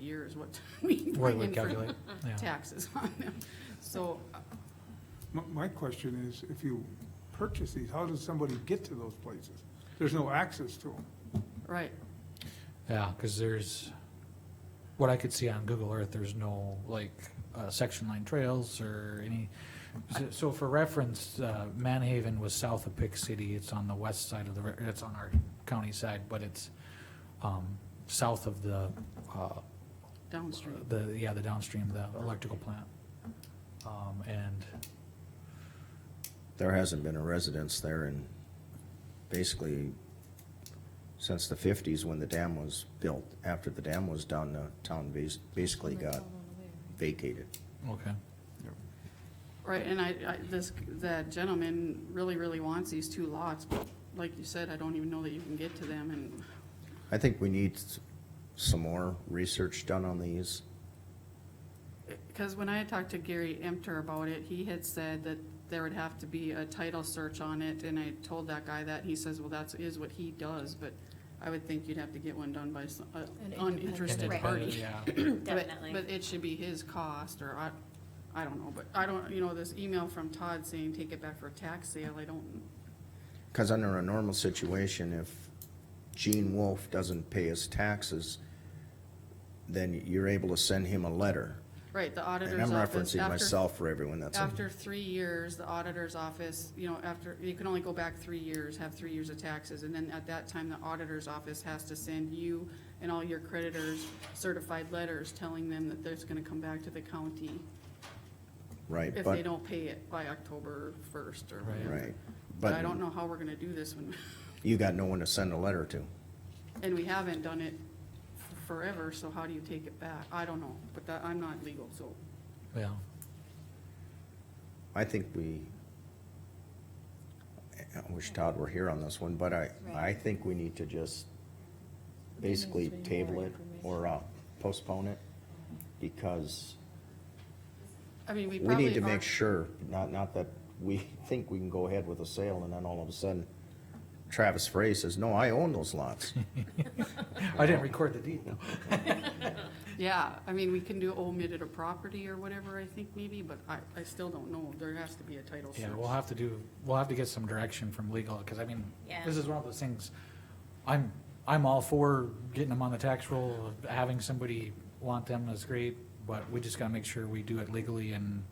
year is what we What bring we in for calculate, yeah. taxes on them. So, uh, My, my question is, if you purchase these, how does somebody get to those places? There's no access to them. right, Yeah, because there's, what I could see on Google Earth, there's no, like, uh, section line trails or any. so- So for reference, uh, Manhaven was south of Pick City, it's on the west side of the, ri- it's on our county side, but it's, um, south of the, uh, downstream. the, yeah, the downstream, the electrical plant. Um, and, There hasn't been a residence there in, basically, since the fifties when the dam was built. After the dam was done, the town bas- basically got vacated. okay, Right, and I, I, this, that gentleman really, really wants these two lots, but like you said, I don't even know that you can get to them and, I think we need s- some more research done on these. because when I had talked to Gary Emter about it, he had said that there would have to be a title search on it, and I told that guy that, he says, well, that's, is what he does, but I would think you'd have to get one done by some, uh, independent- and uninterested Right. party. yeah, But- Definitely. But it should be his cost, or I, I don't know, but I don't, you know, this email from Todd saying take it back for a tax sale, I don't, Because under a normal situation, if Gene Wolfe doesn't pay his taxes, then you're able to send him a letter. right, the And auditor's I'm office. referencing after- myself for everyone that's. After three years, the auditor's office, you know, after, you can only go back three years, have three years of taxes, and then at that time, the auditor's office has to send you and all your creditors certified letters telling them that there's gonna come back to the county Right, if they but, don't pay it by October first or Right. whatever. right. But But I don't know how we're gonna do this when, you got no one to send a letter to. and we haven't done it f- forever, so how do you take it back? I don't know, but that, I'm not legal, so, yeah. I think we, I wish Todd were here on this one, but I, I Right. think we need to just basically Maybe table more it or uh, postpone it, because I mean, we we probably need to are- make sure, not, not that we think we can go ahead with a sale, and then all of a sudden Travis Frey says, no, I own those lots. I didn't record the deed, though. Yeah, I mean, we can do omitted a property or whatever, I think maybe, but I, I still don't know. There has to be a title search. Yeah, we'll have to do, we'll have to get some direction from legal, because I mean, Yeah. this is one of those things, I'm, I'm all for getting them on the tax roll, having somebody want them is great, but we just gotta make sure we do it legally and.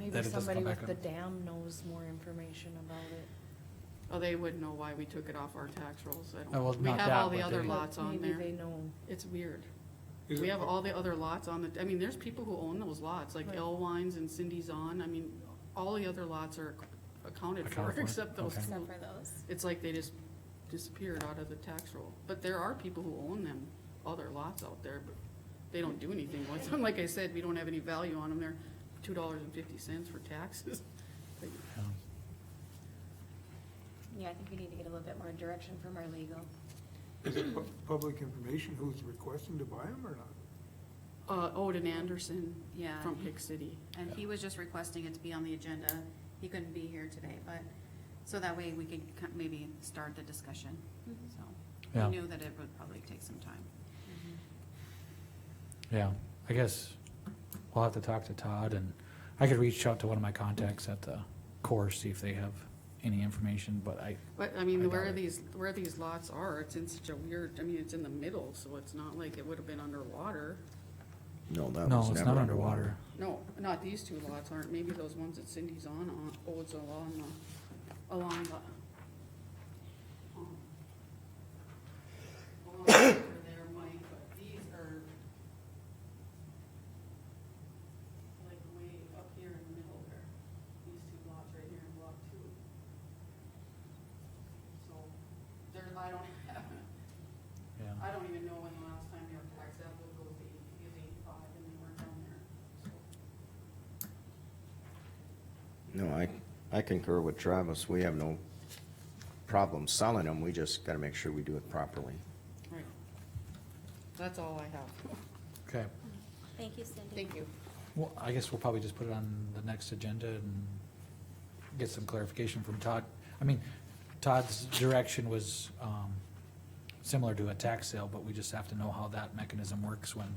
that Maybe it doesn't somebody come back with the on- dam knows more information about it. Oh, they would know why we took it off our tax rolls. I Oh, well, don't, we not have that, all the but other they- lots on Maybe there. they know. It's weird. Is We it- have all the other lots on the, I mean, there's people who own those lots, like Right. L Wines and Cindy's On. I mean, all the other lots are accounted for, Accounted for, except those okay. two. Except for those. It's like they just disappeared out of the tax roll. But there are people who own them, other lots out there, but they don't do anything with them. Like I said, we don't have any value on them. They're two dollars and fifty cents for taxes. But Yeah. Yeah, I think we need to get a little bit more direction from our legal. Is it pu- public information who's requesting to buy them or not? Uh, Odin Anderson Yeah, from and he- Pick City. and he was just requesting it to be on the agenda. He couldn't be here today, but, so that way we could ki- maybe start the discussion, so. Yeah. We knew that it would probably take some time. Yeah, I guess we'll have to talk to Todd and I could reach out to one of my contacts at the Corps, see if they have any information, but I, But, I I mean, doubt where it. these, where these lots are, it's in such a weird, I mean, it's in the middle, so it's not like it would have been underwater. No, that no, was it's never not underwater. underwater. No, not these two lots aren't, maybe those ones that Cindy's on, uh, on, owns along the, uh, along the. um, along there, Mike, but these are like way up here in the middle there, these two lots right here in block two. So, there, I don't have, Yeah, I don't even know when the last time your tax bill goes to eighty, is eighty-five, and they weren't down there, so. No, I, I concur with Travis. We have no problem selling them. We just gotta make sure we do it properly. Right. That's all I have. okay. Thank you, Cindy. Thank you. Well, I guess we'll probably just put it on the next agenda and get some clarification from Todd. I mean, Todd's direction was um, similar to a tax sale, but we just have to know how that mechanism works when